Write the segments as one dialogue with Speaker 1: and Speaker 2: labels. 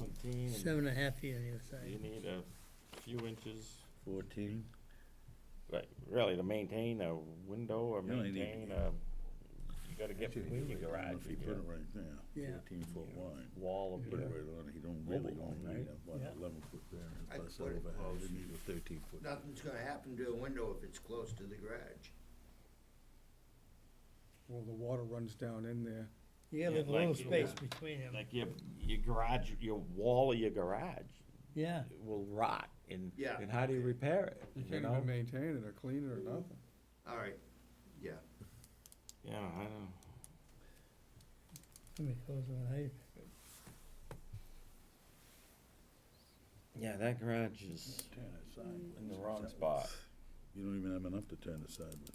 Speaker 1: Seventeen, and
Speaker 2: Seven and a half feet on either
Speaker 1: you
Speaker 2: side.
Speaker 1: need a few inches,
Speaker 3: Fourteen,
Speaker 1: like, really, to maintain a window or
Speaker 3: You only need-
Speaker 1: maintain a, you gotta get
Speaker 3: Actually,
Speaker 1: between your
Speaker 3: like,
Speaker 1: garage
Speaker 3: If you
Speaker 1: and
Speaker 3: put it
Speaker 1: your
Speaker 3: right there,
Speaker 2: Yeah.
Speaker 3: fourteen foot wide,
Speaker 1: wall of
Speaker 3: put it
Speaker 1: your.
Speaker 3: right on, it, you don't really,
Speaker 1: Mobile home,
Speaker 3: don't
Speaker 1: right?
Speaker 3: need a, what,
Speaker 2: Yeah.
Speaker 3: eleven foot variance,
Speaker 4: I'd
Speaker 3: plus
Speaker 4: put it
Speaker 3: overhead, you need a thirteen foot.
Speaker 4: Nothing's gonna happen to a window if it's close to the garage.
Speaker 5: Well, the water runs down in there.
Speaker 2: You gotta leave a
Speaker 1: Yeah,
Speaker 2: little
Speaker 1: like you-
Speaker 2: space between them,
Speaker 1: Like your, your garage, your wall of your garage
Speaker 2: yeah.
Speaker 1: will rot, and,
Speaker 4: Yeah.
Speaker 1: and how do you repair it,
Speaker 5: You
Speaker 1: you
Speaker 5: can't
Speaker 1: know?
Speaker 5: even maintain it or clean it or nothing.
Speaker 4: All right, yeah.
Speaker 1: Yeah, I know.
Speaker 2: Let me close one, I,
Speaker 1: Yeah, that garage is
Speaker 3: Turn
Speaker 4: Mm.
Speaker 3: it sideways.
Speaker 1: in the wrong spot.
Speaker 3: You don't even have enough to turn it sideways,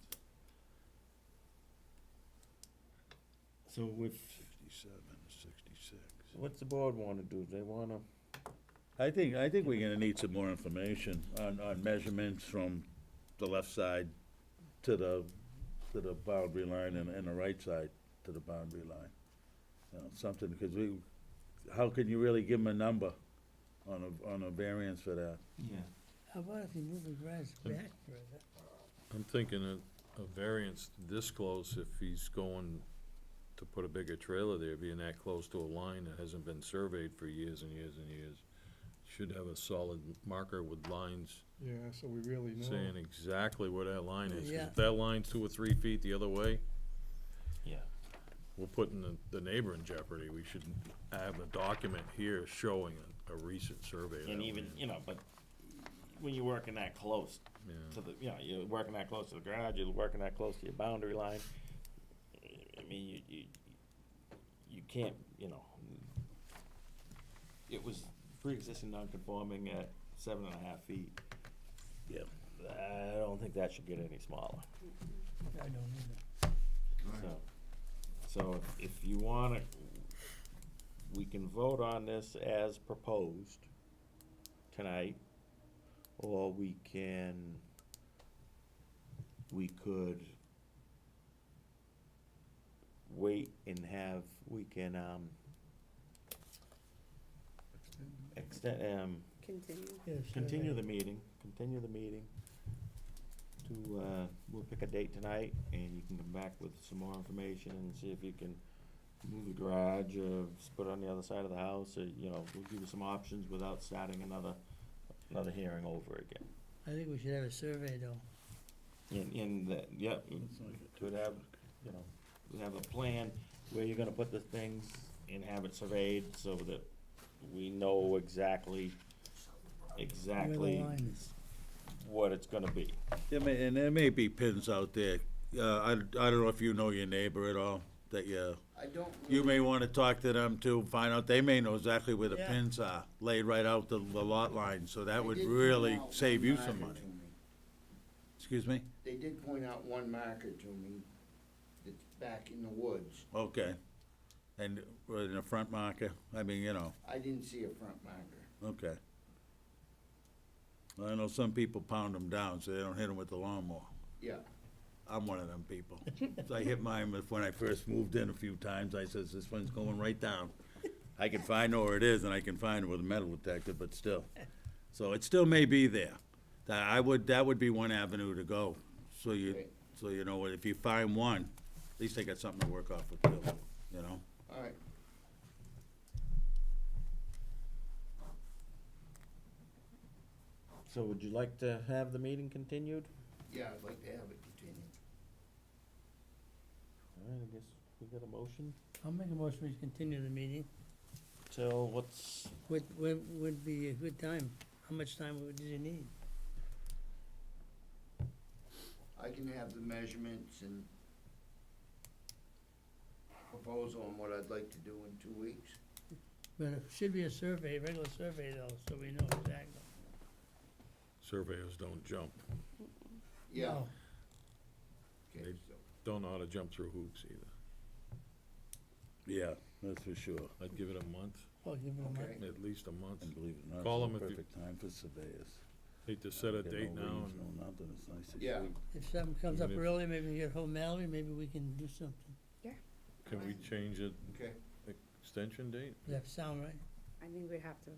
Speaker 1: So if,
Speaker 3: sixty-seven, sixty-six.
Speaker 1: what's the board wanna do? They wanna,
Speaker 3: I think, I think we're gonna need some more information on, on measurements from the left side to the, to the boundary line and, and the right side to the boundary line. You know, something, because we, how can you really give them a number on a, on a variance for that?
Speaker 1: yeah,
Speaker 2: how about if you move the garage back further?
Speaker 6: I'm thinking a, a variance this close, if he's going to put a bigger trailer there, being that close to a line that hasn't been surveyed for years and years and years, should have a solid marker with lines
Speaker 5: Yeah, so we really
Speaker 6: saying exactly where that line is. 'Cause
Speaker 2: Yeah.
Speaker 6: If that line's two or three feet the other way,
Speaker 1: yeah.
Speaker 6: we're putting the, the neighbor in jeopardy. We should have a document here showing a, a recent survey of that
Speaker 1: And even,
Speaker 6: land.
Speaker 1: you know, but when you're working that close to
Speaker 6: Yeah,
Speaker 1: the, you know, you're working that close to the garage, you're working that close to your boundary line, I mean, you, you, you can't, you know, it was pre-existing non-conforming at seven and a half feet.
Speaker 3: Yeah.
Speaker 1: I don't think that should get any smaller,
Speaker 2: I don't either.
Speaker 1: so, so if you wanna, we can vote on this as proposed tonight, or we can, we could wait and have, we can, um, extend, um,
Speaker 7: Continue.
Speaker 2: Get a survey.
Speaker 1: continue the meeting, continue the meeting to, uh, we'll pick a date tonight, and you can come back with some more information and see if you can move the garage, or put it on the other side of the house, or, you know, we'll give you some options without starting another, another hearing over again.
Speaker 2: I think we should have a survey though.
Speaker 1: And, and, that- yep,
Speaker 3: It's like a
Speaker 1: could have, you know, we have a plan where you're gonna put the things and have it surveyed so that we know exactly, exactly
Speaker 2: Where the line is.
Speaker 1: what it's gonna be.
Speaker 3: There may, and there may be pins out there, uh, I, I don't know if you know your neighbor at all, that you,
Speaker 4: I don't
Speaker 3: you
Speaker 4: really,
Speaker 3: may wanna talk to them too, find out, they may know exactly where the
Speaker 2: Yeah.
Speaker 3: pins are, laid right out the, the lot line, so that
Speaker 4: They
Speaker 3: would
Speaker 4: did point
Speaker 3: really
Speaker 4: out one
Speaker 3: save you
Speaker 4: marker
Speaker 3: some money.
Speaker 4: to me.
Speaker 3: Excuse me?
Speaker 4: They did point out one marker to me that's back in the woods.
Speaker 3: Okay. And, uh, in the front marker, I mean, you know,
Speaker 4: I didn't see a front marker.
Speaker 3: okay. I know some people pound them down, so they don't hit them with the lawnmower.
Speaker 4: Yeah,
Speaker 3: I'm one of them people. So I hit mine with- when I first moved in a few times, I says, this one's going right down. I can find out where it is, and I can find it with a metal detector, but still. So it still may be there. That I would, that would be one avenue to go, so you,
Speaker 4: Right.
Speaker 3: so you know, if you find one, at least they got something to work off with, too, you know?
Speaker 4: all right.
Speaker 1: So would you like to have the meeting continued?
Speaker 4: Yeah, I'd like to have it continue.
Speaker 1: All right, I guess we got a motion.
Speaker 2: I'll make a motion, we continue the meeting.
Speaker 1: Till what's,
Speaker 2: Would, would, would be a good time. How much time would you need?
Speaker 4: I can have the measurements and proposal on what I'd like to do in two weeks.
Speaker 2: But it should be a survey, regular survey though, so we know exactly.
Speaker 6: surveyors don't jump,
Speaker 4: Yeah.
Speaker 2: No.
Speaker 4: Okay,
Speaker 6: Maybe.
Speaker 4: so,
Speaker 6: don't know how to jump through hoops either.
Speaker 3: Yeah, that's for sure.
Speaker 6: I'd give it a month,
Speaker 2: Well, Oh, give them a month.
Speaker 4: okay,
Speaker 6: at least a month.
Speaker 3: And believe it or not,
Speaker 6: Call 'em
Speaker 3: it's
Speaker 6: if
Speaker 3: the
Speaker 6: you-
Speaker 3: perfect time for surveyors.
Speaker 6: Hate to set a
Speaker 3: Get no
Speaker 6: date now
Speaker 3: leaves,
Speaker 6: and
Speaker 3: No nothing, it's nice. and
Speaker 4: Yeah.
Speaker 3: sweet.
Speaker 2: If something comes up
Speaker 6: Even if-
Speaker 2: early, maybe we get home Mallory, maybe we can do something.
Speaker 6: Can we change the
Speaker 4: okay.
Speaker 6: extension date?
Speaker 2: Does that sound right?
Speaker 1: I think we'd have to